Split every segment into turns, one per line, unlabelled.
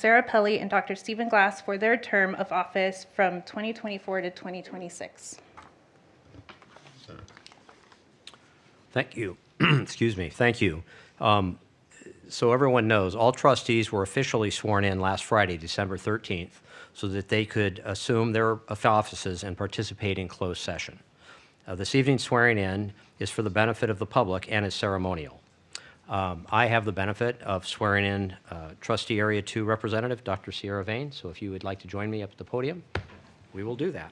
Sarah Pelly and Dr. Stephen Glass for their term of office from 2024 to 2026.
Thank you. Excuse me. Thank you. Um, So everyone knows, all trustees were officially sworn in last Friday, December 13th, so that they could assume their offices and participate in closed session. Uh, This evening's swearing in is for the benefit of the public and is ceremonial. Um, I have the benefit of swearing in uh, trustee Area 2 Representative, Dr. Sierra Vane, so if you would like to join me up at the podium, we will do that.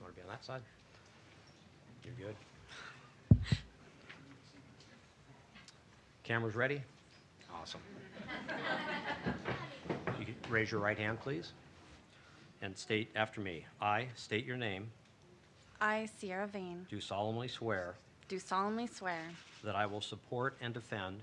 Want to be on that side? You're good. Cameras ready? Awesome. You can Raise your right hand, please, and state after me. I state your name,
I, Sierra Vane,
do solemnly swear
do solemnly swear
that I will support and defend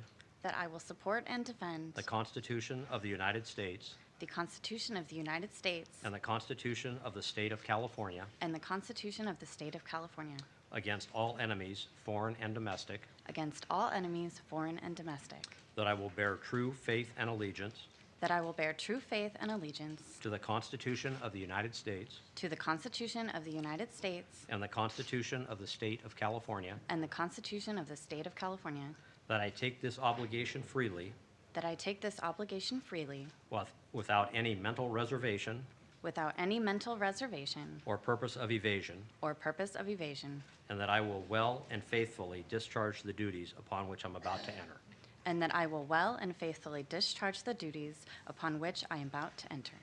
that I will support and defend
the Constitution of the United States
the Constitution of the United States
and the Constitution of the State of California
and the Constitution of the State of California
against all enemies, foreign and domestic,
against all enemies, foreign and domestic,
that I will bear true faith and allegiance
that I will bear true faith and allegiance
to the Constitution of the United States
to the Constitution of the United States
And the Constitution of the State of California.
and the Constitution of the State of California,
That I take this obligation freely,
that I take this obligation freely
with- without any mental reservation
without any mental reservation
or purpose of evasion,
or purpose of evasion,
and that I will well and faithfully discharge the duties upon which I'm about to enter.
and that I will well and faithfully discharge the duties upon which I am about to enter.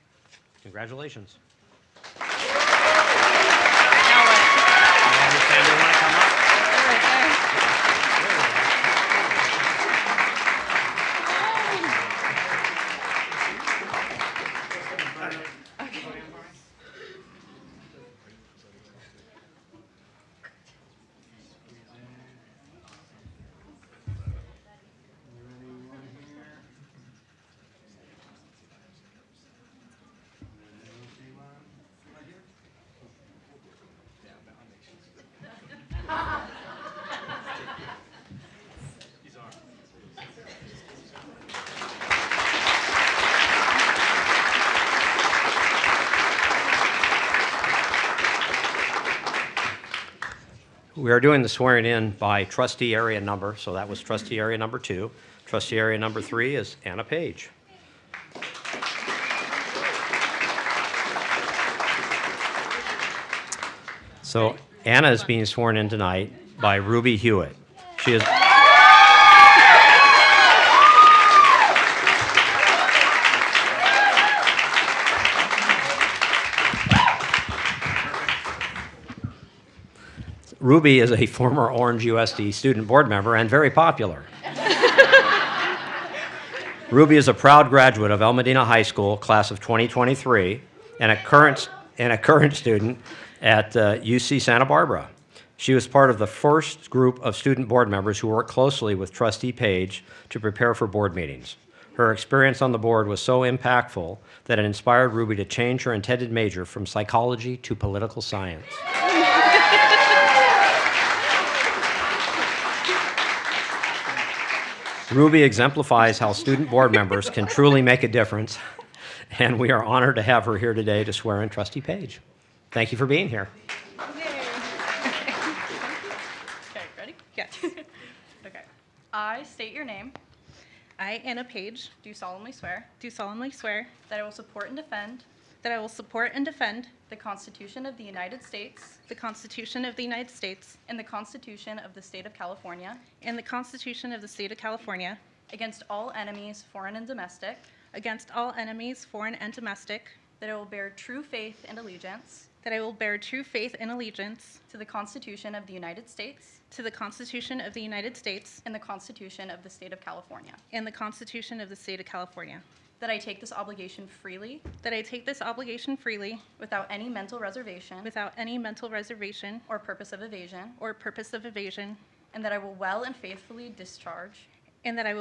Congratulations.
Now what?
You have your family wanna come up? We are doing the swearing in by trustee area number, so that was trustee area number two. Trustee area number three is Anna Page. So Anna is being sworn in tonight by Ruby Hewitt. She is. Ruby is a former Orange USD student board member and very popular. Ruby is a proud graduate of El Medina High School, class of 2023, and a current, and a current student at uh, UC Santa Barbara. She was part of the first group of student board members who worked closely with Trustee Page to prepare for board meetings. Her experience on the board was so impactful that it inspired Ruby to change her intended major from psychology to political science. Ruby exemplifies how student board members can truly make a difference, and we are honored to have her here today to swear in Trustee Page. Thank you for being here.
Okay, ready?
Yes.
Okay. I state your name,
I, Anna Page,
do solemnly swear
do solemnly swear
that I will support and defend
that I will support and defend
the Constitution of the United States
the Constitution of the United States
and the Constitution of the State of California
and the Constitution of the State of California
against all enemies, foreign and domestic,
against all enemies, foreign and domestic,
that I will bear true faith and allegiance
that I will bear true faith and allegiance
to the Constitution of the United States
to the Constitution of the United States
and the Constitution of the State of California,
and the Constitution of the State of California,
that I take this obligation freely
that I take this obligation freely
without any mental reservation
without any mental reservation
or purpose of evasion,
or purpose of evasion,
and that I will well and faithfully discharge
and and that I will